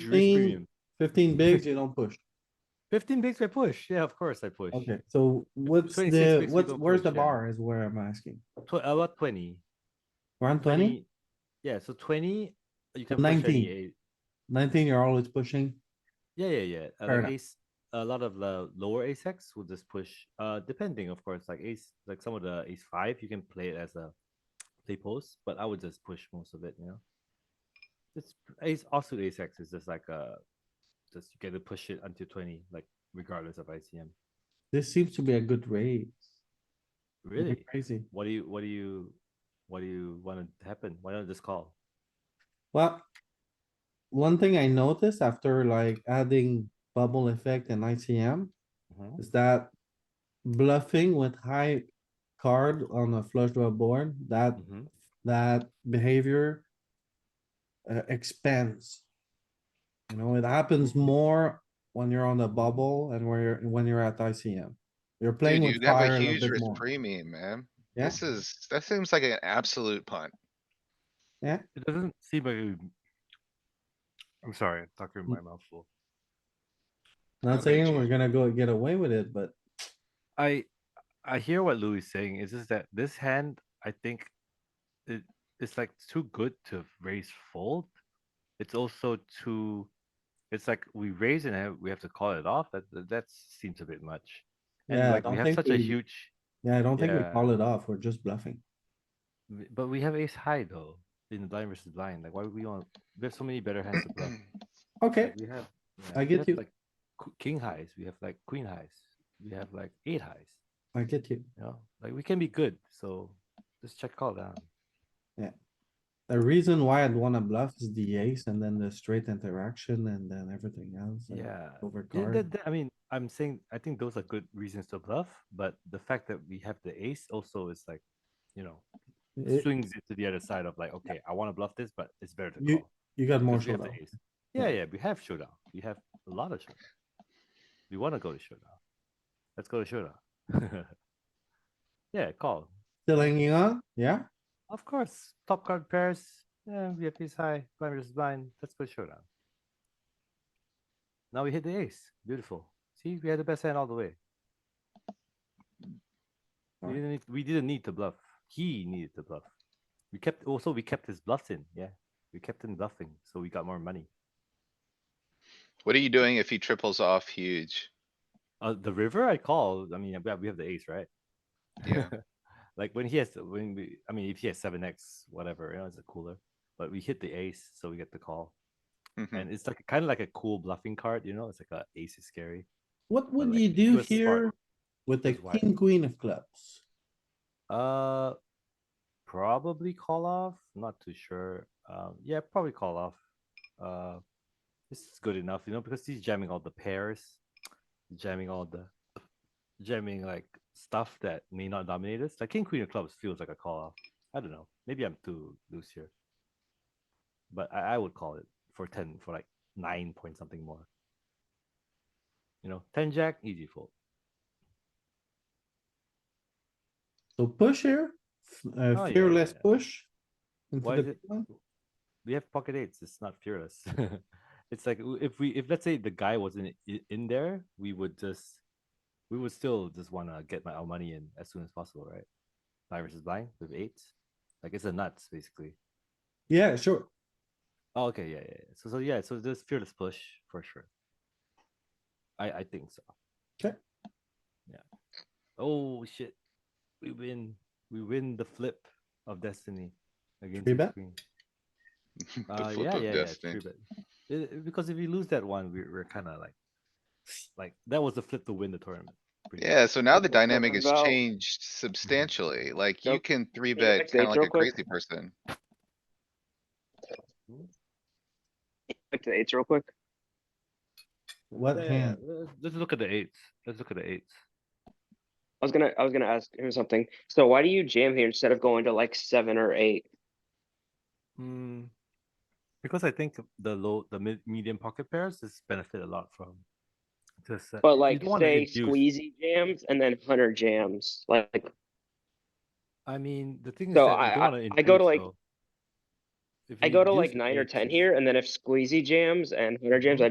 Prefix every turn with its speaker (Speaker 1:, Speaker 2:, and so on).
Speaker 1: Fifteen,
Speaker 2: Fifteen,
Speaker 1: fifteen bigs, you don't push.
Speaker 2: fifteen bigs I push. Yeah, of course I push.
Speaker 1: Okay, so what's
Speaker 2: 26
Speaker 1: the,
Speaker 2: bigs, we
Speaker 1: what's,
Speaker 2: don't
Speaker 1: where's
Speaker 2: push,
Speaker 1: the
Speaker 2: yeah.
Speaker 1: bar is where I'm asking.
Speaker 2: Tw- about twenty.
Speaker 1: Around twenty?
Speaker 2: Yeah, so twenty, you can push
Speaker 1: 19.
Speaker 2: any eight.
Speaker 1: Nineteen, you're always pushing.
Speaker 2: Yeah, yeah, yeah. Uh,
Speaker 1: Fair
Speaker 2: like
Speaker 1: enough.
Speaker 2: ace, a lot of the lower ace X will just push. Uh, depending, of course, like ace, like some of the ace five, you can play it as a play post, but I would just push most of it. You know, it's ace also ace X is just like uh, just you get to push it until twenty, like regardless of ICM.
Speaker 1: This seems to be a good raise. It'd be
Speaker 2: Really,
Speaker 1: Crazy.
Speaker 2: what do you, what do you, what do you want to happen? Why don't just call?
Speaker 1: Well, one thing I noticed after like adding bubble effect and ICM
Speaker 2: Mhm.
Speaker 1: is that bluffing with high card on a flush draw board, that,
Speaker 2: Mhm.
Speaker 1: that behavior uh, expands. You know, it happens more when you're on the bubble and where you're, when you're at ICM. You're playing
Speaker 3: Dude,
Speaker 1: with
Speaker 3: you have
Speaker 1: fire
Speaker 3: a
Speaker 1: a little
Speaker 3: huge
Speaker 1: bit
Speaker 3: risk
Speaker 1: more.
Speaker 3: premium, man.
Speaker 1: Yeah.
Speaker 3: This is, that seems like an absolute punt.
Speaker 2: It doesn't seem like. a- I'm sorry, I'm talking with my mouth full.
Speaker 1: Not
Speaker 3: Okay,
Speaker 1: saying
Speaker 3: Jim.
Speaker 1: we're gonna go get away with it, but
Speaker 2: I, I hear what Louis is saying. Is just that this hand, I think, it it's like too good to raise fold. It's also too, it's like we raise and have- we have to call it off. That that that seems a bit much. And
Speaker 1: yeah, I
Speaker 2: like we
Speaker 1: don't
Speaker 2: have
Speaker 1: think
Speaker 2: such a
Speaker 1: we,
Speaker 2: huge,
Speaker 1: yeah, I don't think we
Speaker 2: Yeah.
Speaker 1: call it off. We're just bluffing.
Speaker 2: w- but we have ace high though in the blind versus blind. Like why would we want? We have so many better hands to bluff.
Speaker 1: Okay,
Speaker 2: Like, We have. yeah,
Speaker 1: I
Speaker 2: we
Speaker 1: get
Speaker 2: have,
Speaker 1: you.
Speaker 2: Like qu- king highs, we have like queen highs, we have like eight highs,
Speaker 1: I get you.
Speaker 2: you know, like we can be good, so just check call down.
Speaker 1: The reason why I'd wanna bluff is the ace and then the straight interaction and then everything else. and
Speaker 2: Yeah.
Speaker 1: Over
Speaker 2: Yeah, that-
Speaker 1: card.
Speaker 2: that- I mean, I'm saying, I think those are good reasons to bluff, but the fact that we have the ace also is like, you know,
Speaker 1: It-
Speaker 2: swings it to the other side of like, okay, I wanna bluff this, but it's better to
Speaker 1: You-
Speaker 2: call.
Speaker 1: You got more
Speaker 2: 'cause we have the
Speaker 1: showdown.
Speaker 2: ace. Yeah, yeah, we have showdown, we have a lot of showdown. We wanna go to showdown. Let's go to showdown. Yeah, call.
Speaker 1: Still hanging on? Yeah?
Speaker 2: Of course, top card pairs. Yeah, we have ace high, blind versus blind. Let's go showdown. Now we hit the ace. Beautiful. See, we had the best hand all the way. We
Speaker 1: Alright.
Speaker 2: didn't need, we didn't need to bluff. He needed to bluff. We kept also we kept his bluffs in. Yeah, we kept him bluffing, so we got more money.
Speaker 3: What are you doing if he triples off huge?
Speaker 2: Uh, the river I call. I mean, we have, we have the ace, right?
Speaker 3: Yeah.
Speaker 2: like when he has when we. I mean, if he has seven X, whatever, you know, it's a cooler. But we hit the ace, so we get the call.
Speaker 3: Mhm.
Speaker 2: and it's like kind of like a cool bluffing card, you know. It's like a ace is scary.
Speaker 1: What would
Speaker 2: like,
Speaker 1: you
Speaker 2: he
Speaker 1: do
Speaker 2: was smart.
Speaker 1: here with the
Speaker 2: was wise.
Speaker 1: king, queen of clubs?
Speaker 2: Uh, probably call off. Not too sure. Um, yeah, probably call off. Uh, this is good enough, you know, because he's jamming all the pairs, jamming all the, jamming like stuff that may not dominate us. Like king queen of clubs feels like a call off. I don't know. Maybe I'm too loose here, but I, I would call it for ten for like nine point something more. You know, ten jack easy fold.
Speaker 1: So push here, f-
Speaker 2: Oh, yeah,
Speaker 1: uh,
Speaker 2: yeah,
Speaker 1: fearless
Speaker 2: yeah.
Speaker 1: push. into
Speaker 2: Why
Speaker 1: the
Speaker 2: is it-
Speaker 1: big one.
Speaker 2: we have pocket eights. It's not fearless. it's like w- if we if let's say the guy wasn't i- in there, we would just we would still just want to get my our money in as soon as possible, right? Blind versus blind with eights, like it's a nuts basically.
Speaker 1: Yeah, sure.
Speaker 2: Oh, okay, yeah, yeah. yeah. So so yeah, so there's fearless push for sure. I I think so.
Speaker 1: 'Kay.
Speaker 2: Yeah. Oh shit, we win. We win the flip of destiny against
Speaker 1: Three
Speaker 2: the
Speaker 1: bet?
Speaker 2: queen.
Speaker 3: The
Speaker 2: Uh,
Speaker 3: flip
Speaker 2: yeah,
Speaker 3: of
Speaker 2: yeah, yeah,
Speaker 3: destiny.
Speaker 2: true, but it- it- because if you lose that one, we're, we're kind of like, like that was the flip to win the tournament. pretty much.
Speaker 3: Yeah, so now the
Speaker 4: That's what I'm
Speaker 3: dynamic has
Speaker 4: talking about.
Speaker 3: changed substantially. Like you
Speaker 4: Mm-hmm. Nope.
Speaker 3: can three
Speaker 4: Can I
Speaker 3: bet
Speaker 4: back
Speaker 3: kinda
Speaker 4: date
Speaker 3: like
Speaker 4: real
Speaker 3: a
Speaker 4: quick?
Speaker 3: crazy person.
Speaker 4: Back to the eights real quick.
Speaker 1: What
Speaker 2: Yeah,
Speaker 1: hand?
Speaker 2: let's- Let's look at the eights. Let's look at the eights.
Speaker 4: I was gonna, I was gonna ask him something. So why do you jam here instead of going to like seven or eight?
Speaker 2: Hmm. Because I think the low, the mid, medium pocket pairs just benefit a lot from. Just, uh,
Speaker 4: But
Speaker 2: you
Speaker 4: like
Speaker 2: don't wanna
Speaker 4: say
Speaker 2: induce-
Speaker 4: squeezy jams and then hunter jams, like
Speaker 2: I mean, the thing is
Speaker 4: So
Speaker 2: that
Speaker 4: I-
Speaker 2: you don't
Speaker 4: I-
Speaker 2: wanna
Speaker 4: I go
Speaker 2: induce
Speaker 4: to, like,
Speaker 2: though. if
Speaker 4: I
Speaker 2: you
Speaker 4: go to
Speaker 2: use
Speaker 4: like nine or
Speaker 2: eights,
Speaker 4: ten
Speaker 2: it's-
Speaker 4: here, and then if squeezy jams and hunter jams, I